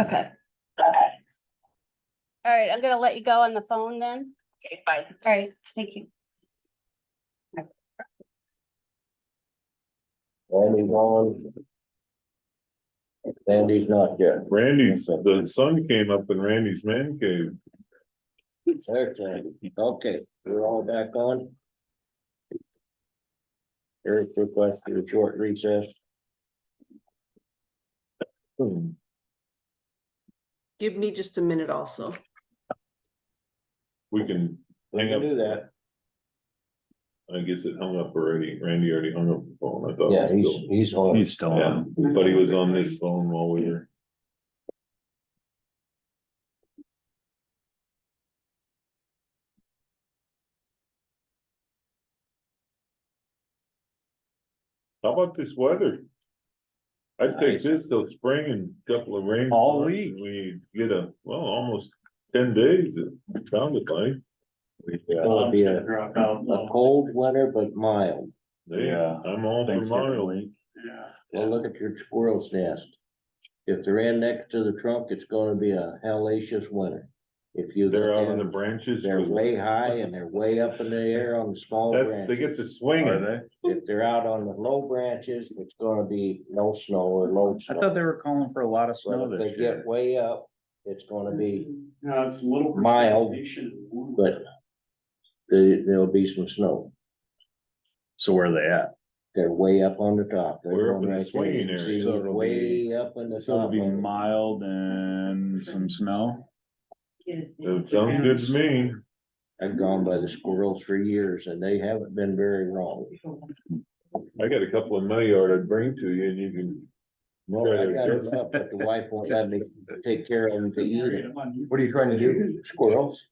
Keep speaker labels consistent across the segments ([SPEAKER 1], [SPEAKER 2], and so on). [SPEAKER 1] Okay,
[SPEAKER 2] Okay,
[SPEAKER 1] all right, I'm gonna let you go on the phone then.
[SPEAKER 2] okay, bye.
[SPEAKER 1] All right, thank you.
[SPEAKER 3] Randy's on. Randy's not here.
[SPEAKER 4] Randy's, the sun came up in Randy's man cave.
[SPEAKER 3] There's Randy. Okay, we're all back on. Eric requested a short recess.
[SPEAKER 4] Hmm.
[SPEAKER 5] Give me just a minute also.
[SPEAKER 4] We can
[SPEAKER 3] We
[SPEAKER 4] hang
[SPEAKER 3] can
[SPEAKER 4] up.
[SPEAKER 3] do that.
[SPEAKER 4] I guess it hung up already. Randy already hung up the phone, I thought.
[SPEAKER 3] Yeah, he's, he's on.
[SPEAKER 6] He's still
[SPEAKER 4] Yeah,
[SPEAKER 6] on.
[SPEAKER 4] but he was on this phone while we were. How about this weather? I'd take
[SPEAKER 3] Nice.
[SPEAKER 4] this till spring and a couple of rains.
[SPEAKER 6] All
[SPEAKER 4] months,
[SPEAKER 6] week.
[SPEAKER 4] and We get a, well, almost ten days, it sounded like.
[SPEAKER 3] It'll be a, a uh, cold winter, but mild.
[SPEAKER 6] Yeah.
[SPEAKER 4] I'm all for
[SPEAKER 6] Thanksgiving
[SPEAKER 4] miles.
[SPEAKER 6] week.
[SPEAKER 3] Well, look at your squirrel's nest. If they're in next to the trunk, it's gonna be a hellacious winter. If you.
[SPEAKER 4] They're out on the
[SPEAKER 3] and
[SPEAKER 4] branches.
[SPEAKER 3] They're way high and they're way up in the air on the small
[SPEAKER 4] That's,
[SPEAKER 3] branches.
[SPEAKER 4] they get to swing
[SPEAKER 6] Are
[SPEAKER 4] it. eh?
[SPEAKER 3] If they're out on the low branches, it's gonna be no snow or low
[SPEAKER 6] I thought
[SPEAKER 3] snow.
[SPEAKER 6] they were calling for a lot of snow
[SPEAKER 3] But if
[SPEAKER 6] this
[SPEAKER 3] they get
[SPEAKER 6] year.
[SPEAKER 3] way up, it's gonna be,
[SPEAKER 7] No, it's a little.
[SPEAKER 3] Mild,
[SPEAKER 7] precipitation.
[SPEAKER 3] but there, there'll be some snow.
[SPEAKER 6] So where are they at?
[SPEAKER 3] They're way up on the top. They're
[SPEAKER 4] We're up
[SPEAKER 3] going right
[SPEAKER 4] in the
[SPEAKER 3] there. You
[SPEAKER 4] swinging
[SPEAKER 3] can
[SPEAKER 4] area,
[SPEAKER 3] see
[SPEAKER 6] so it'll be-
[SPEAKER 3] Way up in the
[SPEAKER 6] So it'll
[SPEAKER 3] top.
[SPEAKER 6] be
[SPEAKER 3] of it.
[SPEAKER 6] mild and some snow.
[SPEAKER 4] That sounds good to me.
[SPEAKER 3] I've gone by the squirrels for years and they haven't been very wrong.
[SPEAKER 4] I got a couple in my yard I'd bring to you and you can.
[SPEAKER 3] Well, I got it up, but the wife won't let me take care of them to eat it.
[SPEAKER 6] What are you trying to
[SPEAKER 3] do? Squirrels?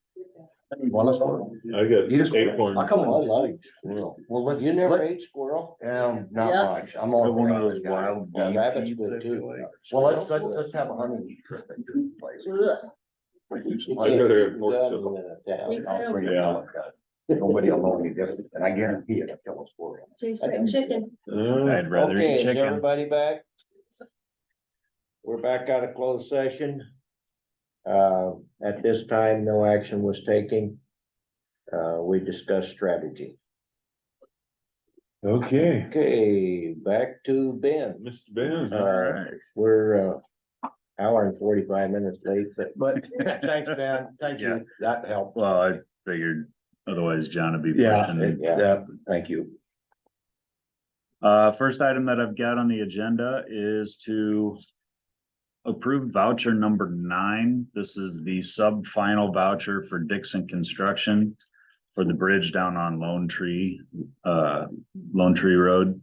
[SPEAKER 3] Want a squirrel?
[SPEAKER 4] I got acorn.
[SPEAKER 3] I like squirrel.
[SPEAKER 8] Well, let's,
[SPEAKER 3] You never
[SPEAKER 8] let-
[SPEAKER 3] ate squirrel?
[SPEAKER 8] um, not
[SPEAKER 5] Yeah.
[SPEAKER 8] much, I'm all.
[SPEAKER 6] One of
[SPEAKER 8] for
[SPEAKER 6] those
[SPEAKER 8] rabbit.
[SPEAKER 6] wild
[SPEAKER 3] Well,
[SPEAKER 6] game
[SPEAKER 3] rabbit's
[SPEAKER 6] feeds, I
[SPEAKER 3] good too.
[SPEAKER 6] feel like.
[SPEAKER 8] Well, let's, let's, let's have a honey trip and do it place.
[SPEAKER 4] I'd rather have pork chop.
[SPEAKER 3] Well,
[SPEAKER 8] I'll bring a
[SPEAKER 4] Yeah.
[SPEAKER 8] pellet gun. Nobody will know any different, and I guarantee it, I kill a squirrel.
[SPEAKER 5] Chicken.
[SPEAKER 4] Uh,
[SPEAKER 6] I'd rather
[SPEAKER 3] Okay,
[SPEAKER 6] eat
[SPEAKER 3] is
[SPEAKER 6] chicken.
[SPEAKER 3] everybody back? We're back out of closed session. Uh, at this time, no action was taken. Uh, we discussed strategy.
[SPEAKER 4] Okay,
[SPEAKER 3] Okay, back to Ben.
[SPEAKER 4] Mr. Ben.
[SPEAKER 6] Alright.
[SPEAKER 3] We're uh hour and forty-five minutes late, but
[SPEAKER 8] But, thanks, man, thank
[SPEAKER 6] Yeah.
[SPEAKER 8] you, that helped.
[SPEAKER 6] Well, I figured otherwise John would be.
[SPEAKER 8] Yeah,
[SPEAKER 6] pushing.
[SPEAKER 8] it- yeah, thank you.
[SPEAKER 6] Uh, first item that I've got on the agenda is to approve voucher number nine. This is the sub-final voucher for Dixon Construction for the bridge down on Lone Tree, uh, Lone Tree Road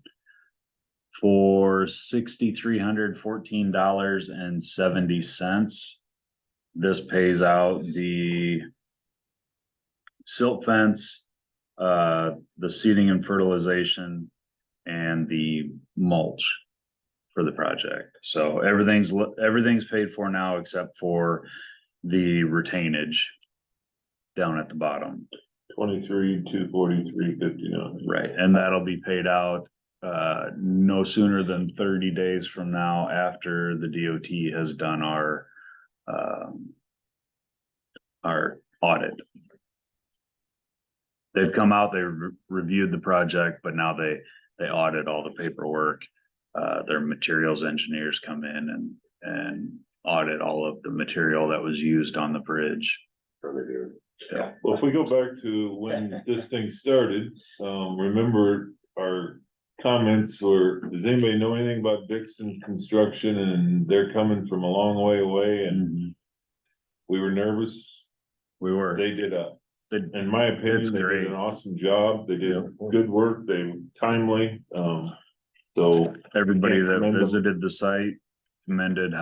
[SPEAKER 6] for sixty-three hundred fourteen dollars and seventy cents. This pays out the silt fence, uh, the seeding and fertilization, and the mulch for the project. So everything's, li- everything's paid for now except for the retainage down at the bottom,
[SPEAKER 4] Twenty-three, two forty-three, fifty-nine.
[SPEAKER 6] right? And that'll be paid out uh, no sooner than thirty days from now after the DOT has done our um, our audit. They've come out, they re- reviewed the project, but now they, they audit all the paperwork. Uh, their materials engineers come in and, and audit all of the material that was used on the bridge. Yeah.
[SPEAKER 4] Well, if we go back to when this thing started, um, remember our comments were, does anybody know anything about Dixon Construction? And they're coming from a long way away and
[SPEAKER 6] And
[SPEAKER 4] we were nervous.
[SPEAKER 6] we were,
[SPEAKER 4] They did a
[SPEAKER 6] they,
[SPEAKER 4] in my opinion,
[SPEAKER 6] It's
[SPEAKER 4] they did
[SPEAKER 6] great.
[SPEAKER 4] an awesome job. They did good work. They were timely. Um, so
[SPEAKER 6] everybody
[SPEAKER 4] Yeah,
[SPEAKER 6] that
[SPEAKER 4] commendable.
[SPEAKER 6] visited the site commended